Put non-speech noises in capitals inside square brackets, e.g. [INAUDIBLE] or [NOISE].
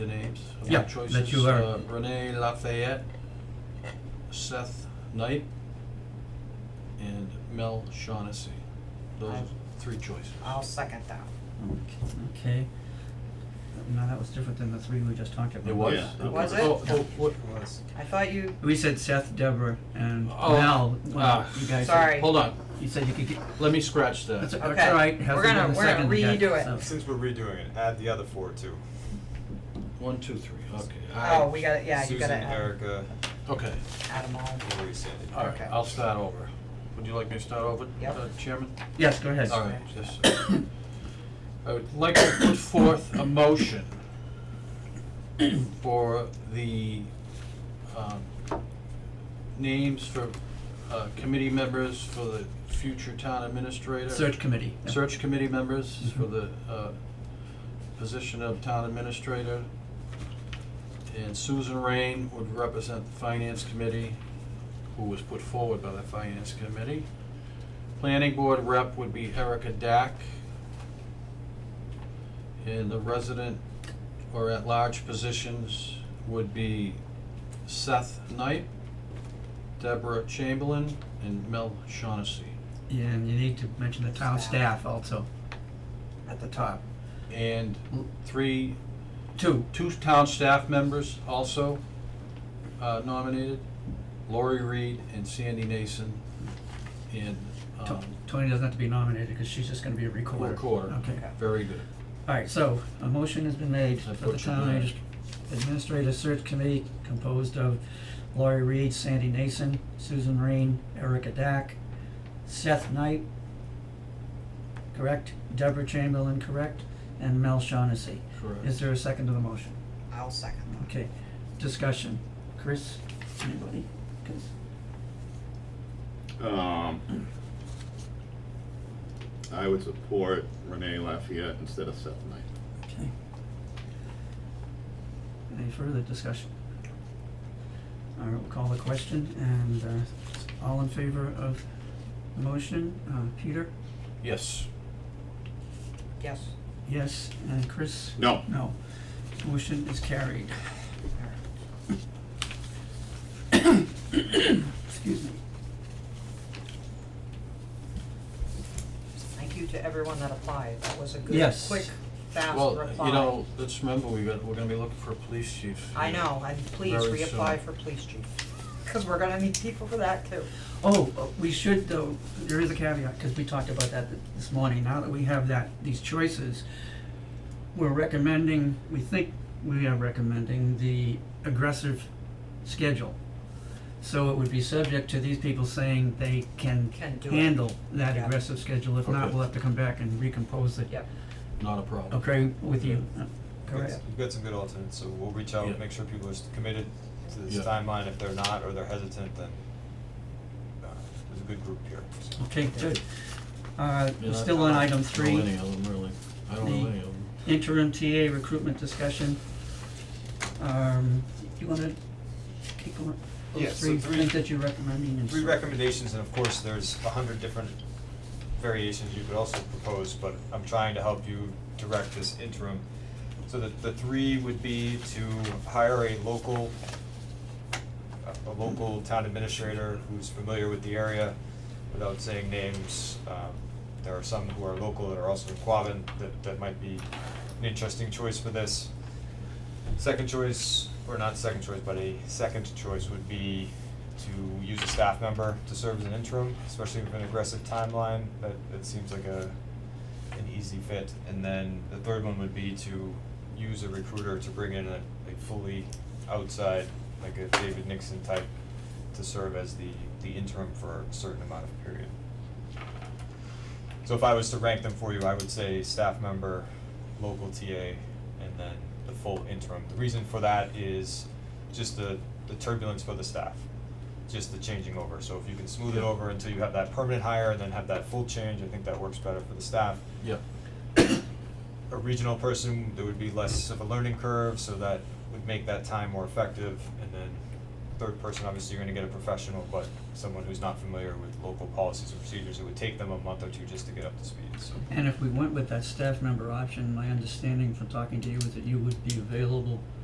Yeah, top choices, that you are- uh, Renee Lafayette, Seth Knight, and Mel Shaughnessy. Those are I've- three choices. I'll second that. Okay. No, that was different than the three we just talked about. It was? Yeah, Okay. Was it? Oh, oh, what, was. I thought you, We said Seth, Deborah, and Oh, Mel, when ah, you guys. Sorry. hold on, You said you could get, let me scratch that's, that. that's Okay. all right, We're hasn't gonna- been we're gonna seconded yet, redo it. so- Since we're redoing it, add the other four too. One, two, three, okay. I- oh, we gotta, yeah, you gotta Susan, add, Erica, Okay, add them all. Lori, Sandy. all right, Okay. I'll start over. Would you like me to start over, Yep. uh, Chairman? Yes, go ahead. All right, yes, sir. I would like to put forth a motion for the um, names for uh, committee members for the future town administrator. Search committee. yeah. Search committee members for the uh, position of town administrator. And Susan Rain would represent the finance committee, who was put forward by the finance committee. Planning board rep would be Erica Dack. And the resident or at-large positions would be Seth Knight, Deborah Chamberlain, and Mel Shaughnessy. Yeah, and you need to mention the town Staff. staff also at the top. And three Two, two town staff members also uh, nominated, Lori Reed and Sandy Nason, and To- um, Tony doesn't have to be nominated because she's just gonna be a recorder. Recorder. Okay, Okay. very good. all right, so a motion has been made I for the butchered town that. adminis- administrative search committee composed of Laurie Reed, Sandy Nason, Susan Rain, Erica Dack, Seth Knight, correct, Deborah Chamberlain, correct, and Mel Shaughnessy. Is there a second to the motion? I'll second that. Okay, discussion. Chris, anybody? 'Cause- Um, I would support Renee Lafayette instead of Seth Knight. Okay. Any further discussion? All right, we'll call the question, and uh, all in favor of the motion, uh, Peter? Yes, Yes, Yes, and Chris? No, No. Motion is carried. [COUGHS] Excuse me. thank you to everyone that applied, that was a good, Yes. quick, fast well, reply. you know, let's remember, we got, we're gonna be looking for a police chief. I know, and please Very reapply soon. for police chief, cause we're gonna need people for that too. Oh, uh, we should though, there is a caveat, cause we talked about that th- this morning, now that we have that, these choices, we're recommending, we think we are recommending the aggressive schedule. So it would be subject to these people saying they can Can do it. handle that Yeah. aggressive schedule, if not, Okay. we'll have to come back and recompose it. Yep. Not a problem. Okay, with you, Uh, We've got- correct? We've got some good alternates, so we'll reach out, Yeah. make sure people are s- committed to this Yeah. timeline. If they're not, or they're hesitant, then uh, there's a good group here, so. Okay, good. Uh, Yeah, we're I- still on I item don't three. know any of them, really. I don't know The- any of them. interim TA recruitment discussion. Um, you wanna keep going, Yeah, those so three three- things that you're recommending and Three so- recommendations, and of course, there's a hundred different variations you could also propose, but I'm trying to help you direct this interim. So the, the three would be to hire a local, a- a local town administrator who's familiar with the area, without saying names. Um, There are some who are local that are also in Quabbin, that, that might be an interesting choice for this. Second choice, or not second choice, but a second choice would be to use a staff member to serve as an interim, especially with an aggressive timeline, that, that seems like a, an easy fit. And then the third one would be to use a recruiter to bring in a, a fully outside, like a David Nixon type, to serve as the, the interim for a certain amount of period. So if I was to rank them for you, I would say staff member, local TA, and then the full interim. The reason for that is just the, the turbulence for the staff, just the changing over. So if you can smooth it over until you have that permanent hire and then have that full change, I think that works better for the staff. Yeah, A regional person, there would be less of a learning curve, so that would make that time more effective. And then third person, obviously, you're gonna get a professional, but someone who's not familiar with local policies and procedures, it would take them a month or two just to get up to speed, so. And if we went with that staff member option, my understanding from talking to you is that you would be available